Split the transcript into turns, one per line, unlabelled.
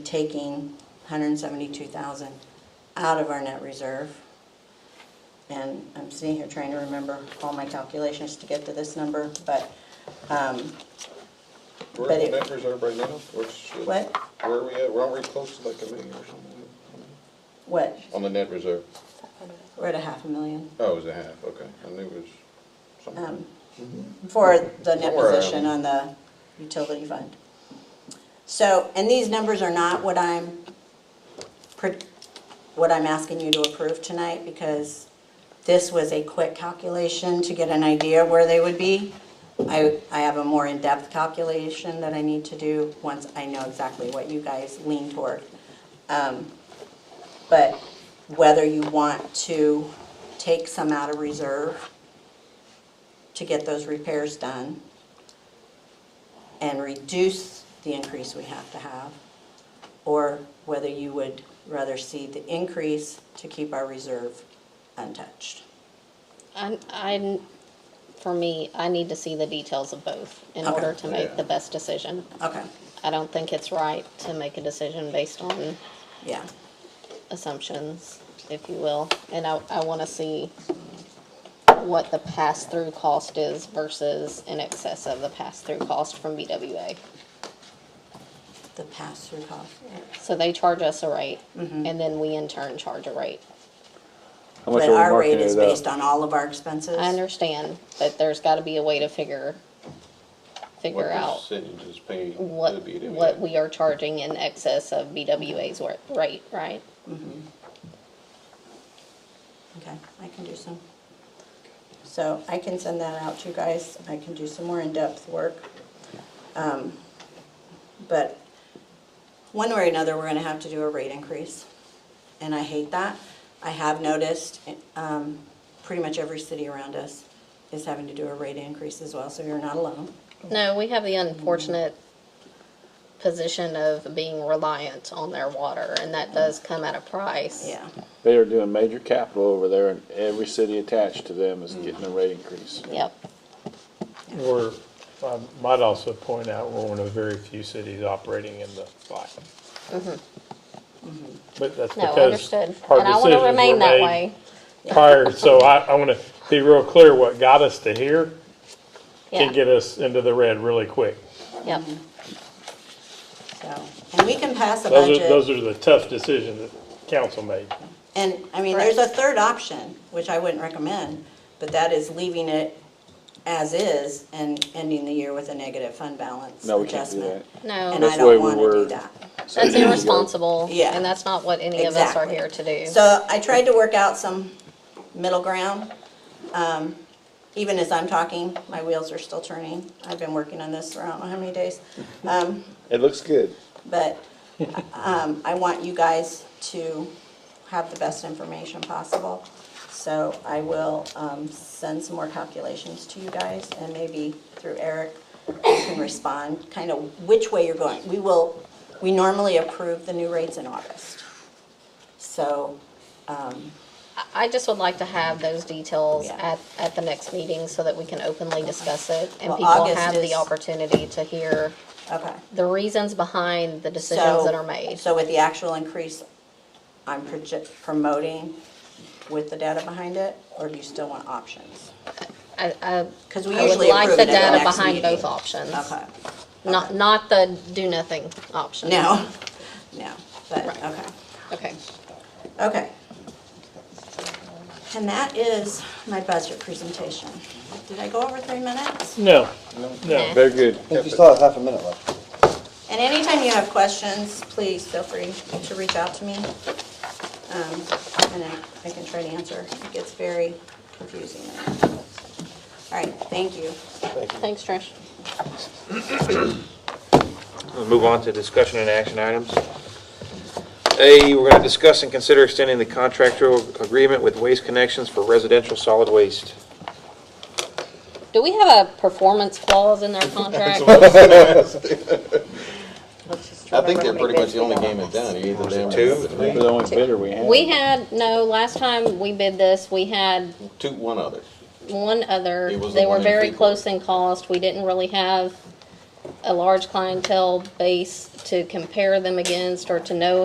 taking 172,000 out of our net reserve. And I'm sitting here trying to remember all my calculations to get to this number, but, um,
Where
But
are the
it-
net reserve right now? What's-
What?
Where are we at? We're already close to like a million or something.
what,
On the net reserve?
we're at a half a million
Oh, it was a half, okay. I knew it
um,
was something.
for the net
Somewhere around.
position on the utility fund. So, and these numbers are not what I'm, pre- what I'm asking you to approve tonight because this was a quick calculation to get an idea where they would be. I, I have a more in-depth calculation that I need to do once I know exactly what you guys lean toward. Um, But whether you want to take some out of reserve to get those repairs done and reduce the increase we have to have, or whether you would rather see the increase to keep our reserve untouched.
I'm, I'm, for me, I need to see the details of both in
Okay.
order to
Oh, Yeah.
make the best decision.
Okay,
I don't think it's right to make a decision based on
yeah,
assumptions, if you will. And I, I wanna see what the pass-through cost is versus in excess of the pass-through cost from BWA.
the pass-through cost.
So they charge us a rate,
Mm-hmm.
and then we in turn charge a rate.
How much
But
are we
our rate
marking
is
it
based
at?
on all of our expenses.
I understand, but there's gotta be a way to figure, figure out.
What percentage is paid? to
what,
the BWA?
what we are charging in excess of BWA's wor- rate, right?
Okay, I can do some. So I can send that out to you guys. I can do some more in-depth work. Um, But one way or another, we're gonna have to do a rate increase. And I hate that. I have noticed, um, pretty much every city around us is having to do a rate increase as well, so you're not alone.
No, we have the unfortunate position of being reliant on their water, and that does come at a price.
Yeah,
They are doing major capital over there and every city attached to them is getting a rate increase.
Yep,
We're, I um, might also point out, we're one of the very few cities operating in the black. But that's
Mm-hmm. no,
because
understood.
our
And I want to
decisions were
remain that
made
way.
prior, so I, I want to be real clear, what got us to here can
Yeah,
get us into the red really quick.
yep,
Mm-hmm. so, and we can pass a
Those are, those
budget.
are the tough decisions that council made.
And, I mean, there's a third option, which I wouldn't recommend, but that is leaving it as is and ending the year with a negative fund balance
No, we can't do
adjustment.
that.
No.
And I
That's the way
don't
we
want to do
were-
that.
So
that's
there you go.
irresponsible,
Yeah.
and that's not what any of us are
Exactly.
here to do.
So I tried to work out some middle ground. Um, Even as I'm talking, my wheels are still turning. I've been working on this for I don't know how many days. Um,
It looks good.
But um, I want you guys to have the best information possible. So I will um, send some more calculations to you guys, and maybe through Eric, you can respond, kind of which way you're going. We will, we normally approve the new rates in August. So, um,
I just would like to have those details
Yeah.
at, at the next meeting so that we can openly discuss it and
Well,
people
August
have
is-
the opportunity to hear
okay.
the reasons behind the
So-
decisions that are made.
So with the actual increase, I'm proje- promoting with the data behind it, or do you still want options?
I, I,
Because we
I would
usually
like
approve
the
it at the
data
next
behind
meeting.
both options.
Okay,
Not, not the do nothing option.
no, no, but,
Right.
okay,
Okay.
okay. And that is my budget presentation. Did I go over three minutes?
No,
Nah.
no,
Very good.
I think you still have half a minute left.
And anytime you have questions, please feel free to reach out to me. Um, And I I can try to answer. It gets very confusing. All right, thank you.
Thanks, Trish.
We'll move on to discussion and action items. A, we're going to discuss and consider extending the contractual agreement with Waste Connections for residential solid waste.
Do we have a performance clause in their contract?
I think they're pretty much the only game in town. You Either them or
Two?
nothing.
They're the only bidder we have.
We had, no, last time we bid this, we had
Two, one other.
one other.
It was the
They were
one in
very
Freeport.
close in cost. We didn't really have a large clientele base to compare them against or to know